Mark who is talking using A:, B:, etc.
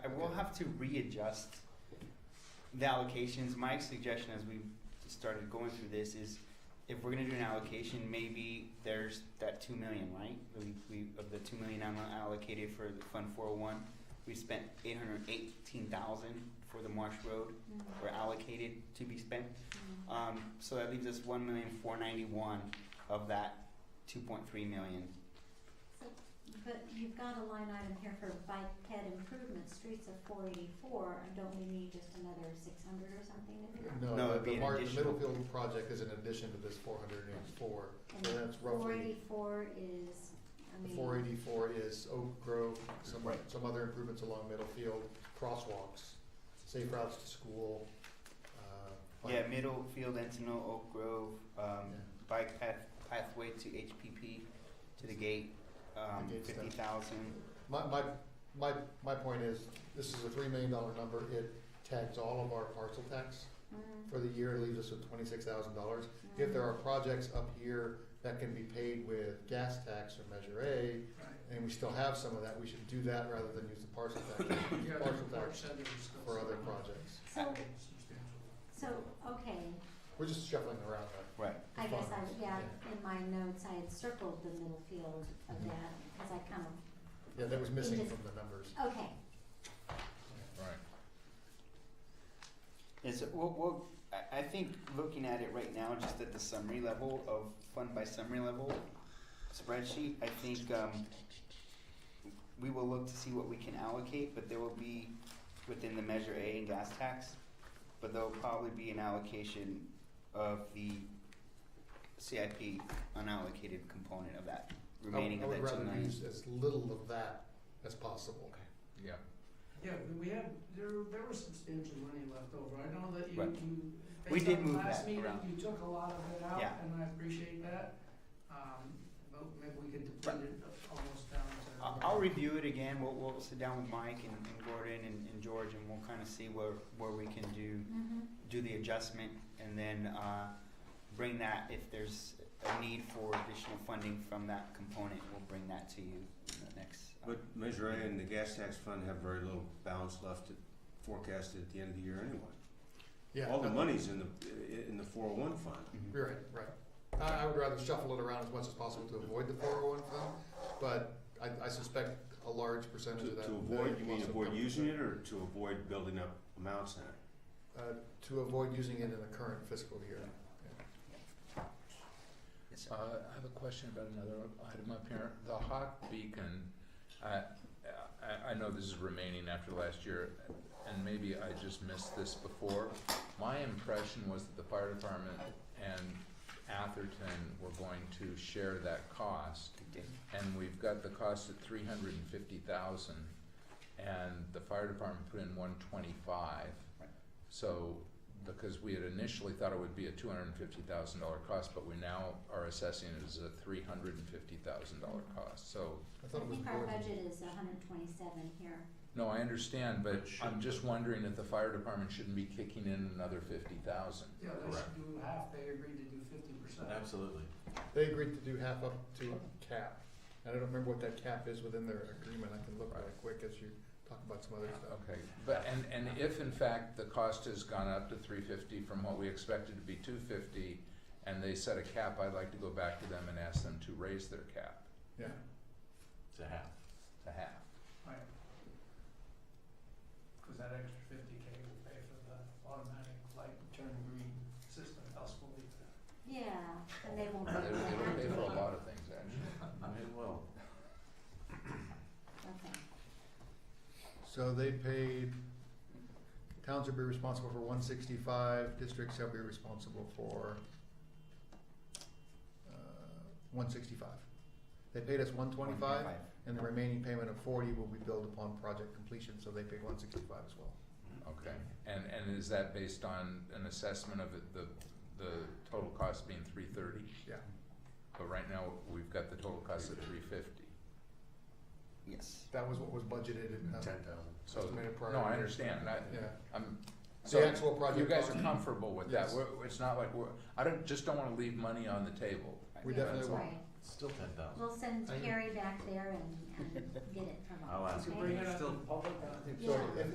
A: have to readjust the allocations. My suggestion as we started going through this is if we're gonna do an allocation, maybe there's that two million, right? We, we, of the two million I'm allocated for the Fund four oh one, we spent eight hundred eighteen thousand for the Marsh Road, were allocated to be spent. Um, so that leaves us one million four ninety-one of that two point three million.
B: But you've got a line item here for bike ped improvement, streets of four eighty-four, and don't we need just another six hundred or something in there?
C: No,
A: No,
C: the-
A: it'd be
C: the
A: an
C: Mar- the
A: additional.
C: Middlefield project is an addition to this four hundred and eighty-four,
B: And
C: so that's
B: Four
C: roughly,
B: eighty-four is, I
C: the
B: mean.
C: four eighty-four is Oak Grove, some,
A: Right.
C: some other improvements along Middlefield, crosswalks, safe routes to school, uh. bike-
A: Yeah, Middlefield, Encino, Oak Grove, um,
C: Yeah.
A: bike path, pathway to HPP, to the gate, um,
C: The gate's done.
A: fifty thousand.
C: My, my, my, my point is, this is a three million dollar number, it tags all of our parcel tax
B: Mm,
C: for the year, leaves us with twenty-six thousand dollars. If
B: mm.
C: there are projects up here that can be paid with gas tax or Measure A, and we still have some of that, we should do that rather than use the parcel tax
D: Yeah, the
C: Partial
D: report
C: tax
D: said there was still
C: for other
D: some
C: projects.
B: So,
D: substantial.
B: so, okay,
C: We're just shuffling around that.
A: Right.
B: I guess I,
C: Farmers,
B: yeah,
C: yeah.
B: in my notes, I had circled the middle field of
C: Mhm.
B: that, cause I kind of,
C: Yeah, that was missing
B: just-
C: from the numbers.
B: okay,
A: Is it, well, well, I, I think looking at it right now, just at the summary level of fund by summary level spreadsheet, I think, um, we will look to see what we can allocate, but there will be within the Measure A and gas tax, but there'll probably be an allocation of the CIP unallocated component of that remaining
C: Oh, I
A: of
C: would
A: that two
C: rather
A: million.
C: use as little of that as possible.
E: Yeah.
D: Yeah, but we had, there, there was substantial money left over, I know that you,
A: Right.
D: you.
A: We
D: based
A: did
D: on
A: move
D: last
A: that
D: meeting,
A: around.
D: You took a lot of it out,
A: Yeah.
D: and I appreciate that, um, but maybe we could
A: Right.
D: deplete it almost down to.
A: I'll, I'll review it again, we'll, we'll sit down with Mike and, and Gordon and, and George and we'll kinda see where, where we can do
B: mhm,
A: do the adjustment and then uh, bring that, if there's a need for additional funding from that component, we'll bring that to you in the next. uh,
F: But Measure A and the gas tax fund have very little balance left to- forecasted at the end of the year anyway.
C: Yeah,
F: All the
C: no,
F: money's in the, in the four oh one fund.
A: Mm-hmm.
C: You're right, right. I, I would rather shuffle it around as much as possible to avoid the four oh one fund, but I, I suspect a large percentage
F: To,
C: of that.
F: to
C: that
F: avoid, you mean
C: also
F: avoid
C: comes-
F: using it or to avoid building up amounts in it?
C: Uh, to avoid using it in the current fiscal year.
A: Yes,
E: Uh,
A: sir.
E: I have a question about another item up here. The hot beacon, I, I, I know this is remaining after last year, and maybe I just missed this before. My impression was that the fire department and Atherton were going to share that cost,
A: Good day.
E: and we've got the cost at three hundred and fifty thousand, and the fire department put in one twenty-five.
A: Right.
E: So, because we had initially thought it would be a two hundred and fifty thousand dollar cost, but we now are assessing it as a three hundred and fifty thousand dollar cost, so,
C: I
B: I
C: thought it was
B: think our
C: more than-
B: budget is hundred twenty-seven here,
E: no, I understand, but
F: It
E: I'm
F: should-
E: just wondering if the fire department shouldn't be kicking in another fifty thousand.
D: Yeah, they should do half, they agreed to do fifty percent.
F: Absolutely.
C: They agreed to do half up to a cap. And I don't remember what that cap is within their agreement. I can look right quick as you talk about some other stuff.
E: Okay, but, and, and if in fact the cost has gone up to three fifty from what we expected to be two fifty, and they set a cap, I'd like to go back to them and ask them to raise their cap
C: Yeah.
F: To have.
E: to half.
D: Right. Cause that extra fifty K will pay for the automatic light turn green system, else we'll leave that.
B: yeah, and they won't. be
E: They,
B: able to
E: they pay
B: have
E: for a
B: it.
E: lot of things, actually.
F: well.
B: Okay,
C: So they paid, towns will be responsible for one sixty-five, districts shall be responsible for, uh, one sixty-five. They paid us one twenty-five, and the remaining payment of forty will be billed upon project completion, so they paid one sixty-five as well.
E: Okay, and, and is that based on an assessment of it- the, the total cost being three thirty?
C: Yeah.
E: But right now, we've got the total cost at three fifty.
A: Yes.
C: That was what was budgeted in, uh,
F: thousand.
E: So,
C: Estimated prior
E: no, I
C: year.
E: understand, I,
C: yeah.
E: I'm, so.
C: The actual project.
E: You guys
C: cost-
E: are comfortable with that,
C: Yes.
E: we're, it's not like we're, I don't, just don't wanna leave money on the table.
C: We
B: Yeah,
C: definitely
B: that's
C: will.
B: right.
F: Still ten thousand.
B: We'll send
C: I-
B: Carrie back there and, and get it from us.
F: I'll ask
B: okay?
D: You can bring it up in public, uh,
C: So
B: Yeah.
C: if,